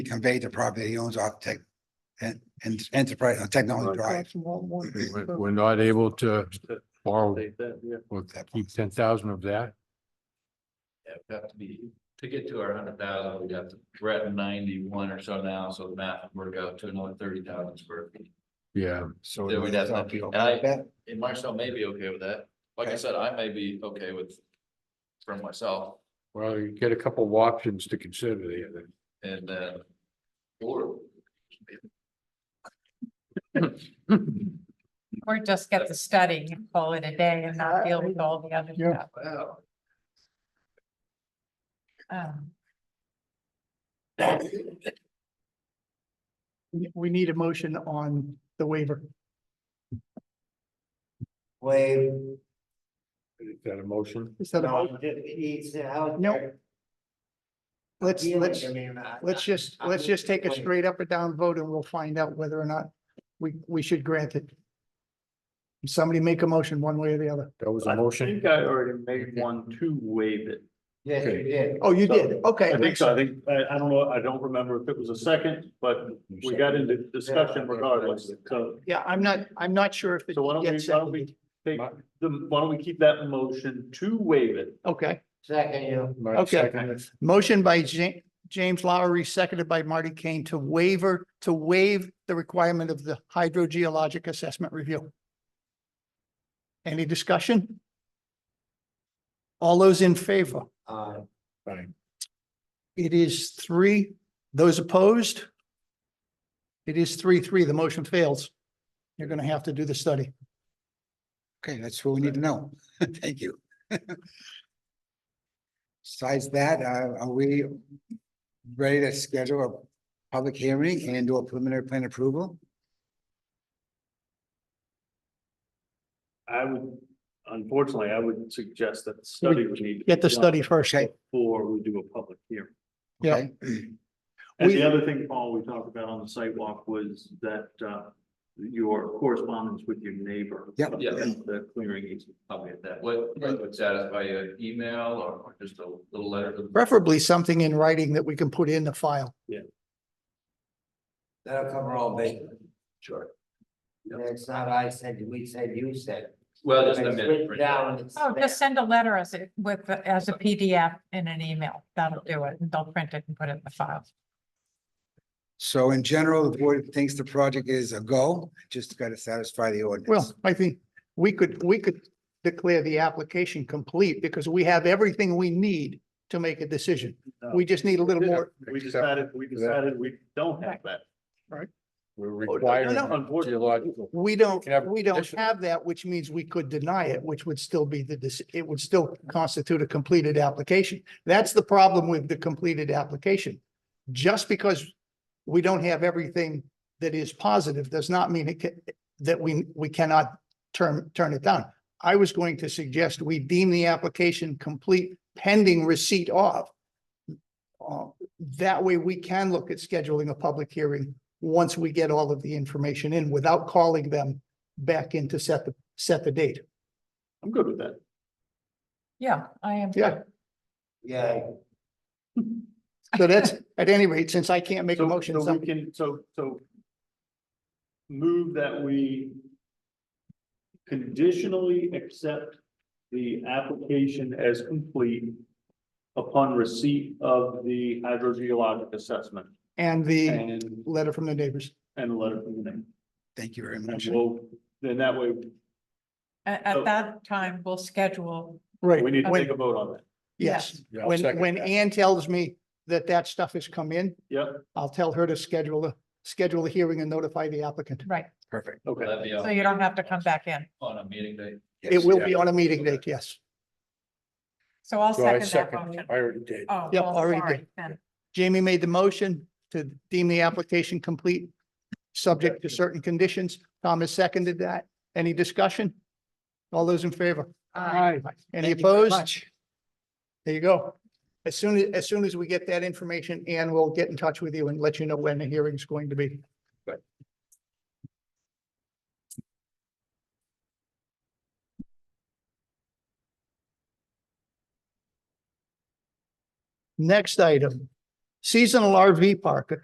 conveyed the property he owns off tech and, and enterprise, uh, technology drive. We're we're not able to borrow or keep ten thousand of that. Yeah, we have to be, to get to our hundred thousand, we'd have to, we're at ninety-one or so now, so the math would work out to another thirty thousand square feet. Yeah, So Yeah, we'd have to- I'll be and okay with I- that. And Marcel may be okay with that. Like I said, I may be okay with, from myself, well, you get a couple of options to consider there then. and then, or Or just get the study and call it a day and not deal with all the other Yeah. stuff. Wow. Um, We- We need a motion on the waiver. Wave, Is that a motion? Is that a no, vote? it needs to help. Nope. your Let's, feelings. let's, I mean, I- let's just, let's just take a straight up or down vote and we'll find out whether or not we, we should grant it. Somebody make a motion one way or the other. That was I a motion? think I already made one to waive it. Yes, you did. Oh, you did, okay. I think so. I think, I, I don't know, I don't remember if it was a second, but we got into discussion regardless. So, Yeah, I'm not, I'm not sure if it so why don't we, gets, why don't we take the, why don't we keep that motion to waive it? okay. Second, you, Mark Okay. seconded it. Motion by Ja- James Lowery, seconded by Marty Kane to waiver, to waive the requirement of the hydrogeologic assessment review. Any discussion? All those in favor? uh, Fine. It is three. Those opposed? It is three, three. The motion fails. You're going to have to do the study. Okay, that's what we need to know. Thank you. Besides that, uh, are we ready to schedule a public hearing and do a preliminary plan approval? I would, unfortunately, I would suggest that the study would need. to be Get the done study first. Okay. Before we do a public hearing. Yeah. Okay. And We- the other thing, Paul, we talked about on the sidewalk was that, uh, your correspondence with your neighbor. Yep. about Yeah. The clearing easement. probably at that, what, what would satisfy an email or or just a little letter? to the- Preferably something in writing that we can put in the file. that'll cover all bases. Sure. And It's not I said, we said, you said. Well, just a It's minute. written down, it's Oh, there. just send a letter as it with, as a PDF in an email. That'll do it. And they'll print it and put it in the file. So in general, the board thinks the project is a go, just gotta satisfy the ordinance. Well, I think we could, we could declare the application complete because we have everything we need to make a decision. We just need a little more. We decided, we decided we don't have that. We're no, required. no, Geological. We don't, Can have we don't condition- have that, which means we could deny it, which would still be the, deci- it would still constitute a completed application. That's the problem with the completed application. Just because we don't have everything that is positive does not mean it can, that we, we cannot turn, turn it down. I was going to suggest we deem the application complete pending receipt of. Uh, That way we can look at scheduling a public hearing once we get all of the information in without calling them back in to set the, set the date. I'm good with that. Yeah, I am. Yeah, Yeah, so that's, at any rate, since I can't make a So- motion, So we somebody- can, so, so. Move that we. Conditionally accept the application as complete. Upon receipt of the hydrogeologic assessment and the and, letter from the neighbors. and a letter from the name. Thank you very And much. we'll, then that way, At, Oh. at that time, we'll schedule. Right. we need to When- take a vote on that. Yes, Yeah, I'll when, second when that. Ann tells me that that stuff has come in, Yep, I'll tell her to schedule a, schedule a hearing and notify the applicant. Right. Perfect. Will okay. that be So on- you don't have to come back in. on a meeting day? It will be on a meeting date, yes. So I'll So I second that second, motion. I already did. Oh, Yep, well, already sorry, did. then. Jamie made the motion to deem the application complete, subject to certain conditions. Thomas seconded that. Any discussion? All those in favor? Uh, Aye. Any Thank you very opposed? much. There you go. As soon as, as soon as we get that information, Ann will get in touch with you and let you know when the hearing is going to be. Next item, seasonal RV park, a